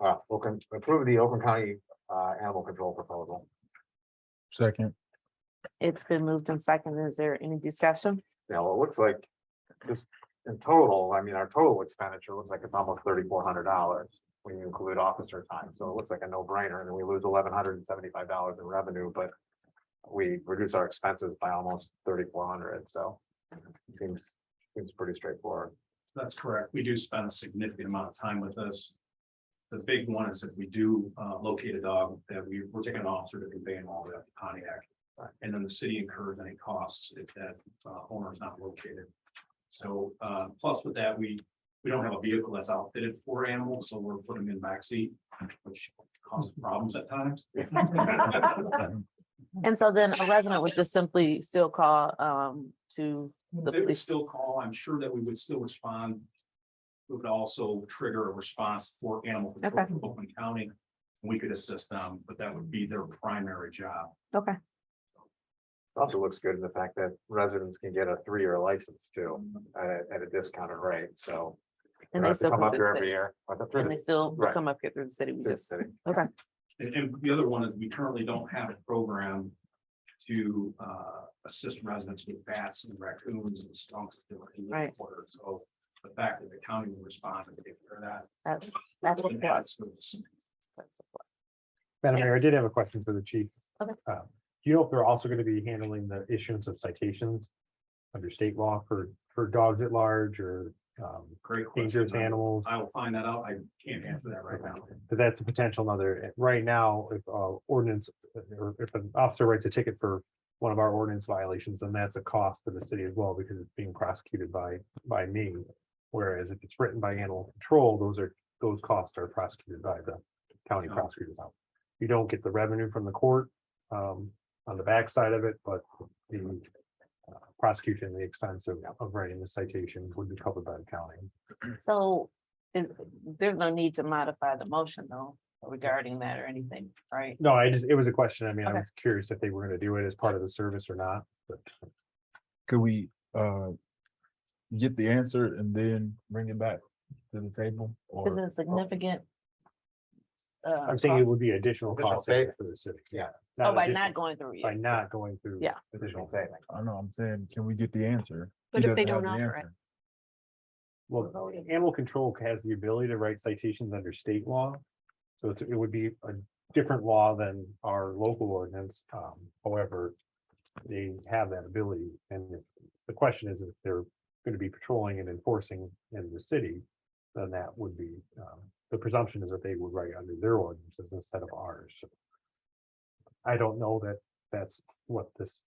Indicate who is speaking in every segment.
Speaker 1: uh, will con- approve the Oakland County, uh, animal control proposal.
Speaker 2: Second,
Speaker 3: It's been moved and seconded. Is there any discussion?
Speaker 1: Now, it looks like just in total, I mean, our total expenditure looks like it's almost thirty-four hundred dollars when you include officer time. So it looks like a no-brainer and then we lose eleven hundred and seventy-five dollars in revenue, but we reduce our expenses by almost thirty-four hundred, so seems, seems pretty straightforward.
Speaker 4: That's correct. We do spend a significant amount of time with this. The big one is if we do uh, locate a dog, that we, we're taking an officer to convey them all the way up to Pontiac. And then the city incurs any costs if that uh, owner is not located. So uh, plus with that, we, we don't have a vehicle that's outfitted for animals, so we're putting them in backseat, which causes problems at times.
Speaker 3: And so then a resident would just simply still call um to the
Speaker 4: They would
Speaker 3: police.
Speaker 4: still call. I'm sure that we would still respond. It would also trigger a response for animal control
Speaker 3: Okay.
Speaker 4: from Oakland County. We could assist them, but that would be their primary job.
Speaker 3: Okay,
Speaker 1: Also looks good in the fact that residents can get a three-year license too, at, a- at a discounted rate, so. they don't
Speaker 3: and they
Speaker 1: have to
Speaker 3: still.
Speaker 1: Come
Speaker 3: come
Speaker 1: up
Speaker 3: to
Speaker 1: here
Speaker 3: the
Speaker 1: every
Speaker 3: city.
Speaker 1: year. but the-
Speaker 3: And they still will
Speaker 1: Right.
Speaker 3: come up here through the city. We
Speaker 1: through the
Speaker 3: just,
Speaker 1: city.
Speaker 4: And, and the other one is we currently don't have a program to, uh, assist residents with bats and raccoons and skunks. that are in the
Speaker 3: Right.
Speaker 4: water. So the fact that the county will respond and take care of that.
Speaker 3: that, that's
Speaker 4: and
Speaker 3: what
Speaker 4: that's-
Speaker 3: was.
Speaker 5: Madam Mayor, I did have a question for the chief.
Speaker 3: Okay.
Speaker 5: Uh, Do you know if they're also going to be handling the issuance of citations under state law for, for dogs at large or um,
Speaker 4: Great. question.
Speaker 5: dangerous animals?
Speaker 4: I will find that out. I can't answer that right now.
Speaker 5: Because that's a potential another, eh, right now, if uh, ordinance, or if an officer writes a ticket for one of our ordinance violations, then that's a cost to the city as well because it's being prosecuted by, by me. Whereas if it's written by animal control, those are, those costs are prosecuted by the county
Speaker 4: Yeah.
Speaker 5: prosecutor's office. You don't get the revenue from the court um, on the backside of it, but the uh, prosecution, the expense of, of writing the citation would be covered by the county.
Speaker 3: So it- there's no need to modify the motion though regarding that or anything, right?
Speaker 5: No, I just, it was a question. I mean, I
Speaker 3: Okay.
Speaker 5: was curious if they were gonna do it as part of the service or not, but
Speaker 2: could we, uh, get the answer and then bring it back to the table?
Speaker 3: Is
Speaker 2: Or,
Speaker 3: it significant? uh,
Speaker 5: I'm saying it would be additional
Speaker 1: Additional
Speaker 5: cost savings
Speaker 1: savings.
Speaker 5: for the city.
Speaker 1: Yeah.
Speaker 3: Oh, by
Speaker 5: additional-
Speaker 3: not going through
Speaker 5: By
Speaker 3: you.
Speaker 5: not going through.
Speaker 3: Yeah.
Speaker 1: Additional
Speaker 5: Additional
Speaker 1: pay.
Speaker 5: savings.
Speaker 2: I don't know, I'm saying, can we get the answer?
Speaker 6: But
Speaker 2: He
Speaker 6: if they
Speaker 2: doesn't
Speaker 6: don't
Speaker 2: have the
Speaker 6: offer it,
Speaker 2: answer.
Speaker 5: Well,
Speaker 3: Voting.
Speaker 5: animal control has the ability to write citations under state law. So it's, it would be a different law than our local ordinance. Um, however, they have that ability. And if- the question is if they're gonna be patrolling and enforcing in the city, then that would be, um, the presumption is that they would write under their ordinances instead of ours. I don't know that that's what this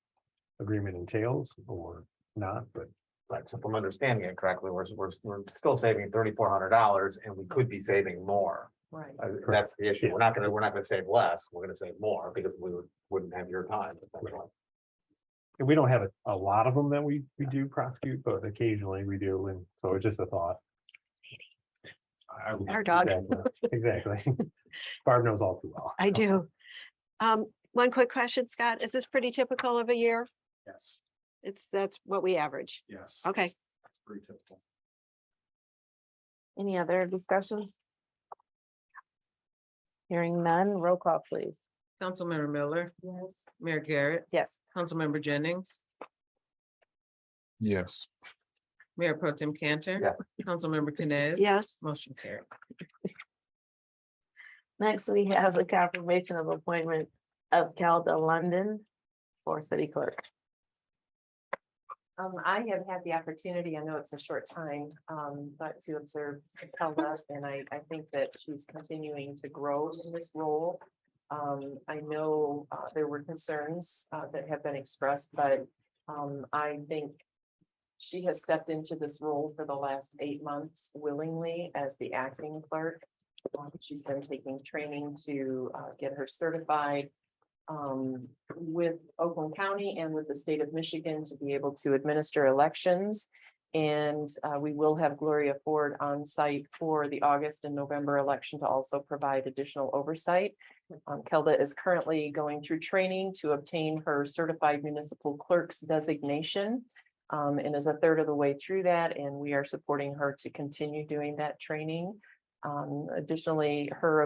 Speaker 5: agreement entails or not, but
Speaker 1: Right, so if I'm understanding it correctly, we're, we're, we're still saving thirty-four hundred dollars and we could be saving more.
Speaker 3: Right.
Speaker 1: Uh, That's the issue. We're not gonna, we're not gonna save less. We're gonna save more because we would- wouldn't have your time. essentially.
Speaker 5: And we don't have a, a lot of them that we, we do prosecute, but occasionally we do, and so it's just a thought.
Speaker 4: I- I will-
Speaker 6: Our dog.
Speaker 5: Exactly. Exactly. Barb knows all too well.
Speaker 6: I do. Um, one quick question, Scott. Is this pretty typical of a year?
Speaker 4: Yes,
Speaker 6: It's, that's what we average.
Speaker 4: yes.
Speaker 6: Okay,
Speaker 4: It's pretty typical.
Speaker 3: Any other discussions? Hearing none, roll call please.
Speaker 7: Councilmember Miller,
Speaker 3: Yes.
Speaker 7: Mayor Garrett,
Speaker 3: Yes.
Speaker 7: Councilmember Jennings,
Speaker 2: Yes,
Speaker 7: Mayor Pro Tem Cantor.
Speaker 1: Yeah.
Speaker 7: Councilmember Canes.
Speaker 6: yes,
Speaker 7: Motion carried.
Speaker 3: Next, we have the confirmation of appointment of Calda London for city clerk.
Speaker 8: Um, I have had the opportunity, I know it's a short time, um, but to observe Kelda, and I, I think that she's continuing to grow in this role. Um, I know, uh, there were concerns, uh, that have been expressed, but, um, I think she has stepped into this role for the last eight months willingly as the acting clerk. Um, She's been taking training to, uh, get her certified um, with Oakland County and with the state of Michigan to be able to administer elections. And uh, we will have Gloria Ford on site for the August and November election to also provide additional oversight. Um, Kelda is currently going through training to obtain her certified municipal clerk's designation. um, and is a third of the way through that, and we are supporting her to continue doing that training. Um, additionally, her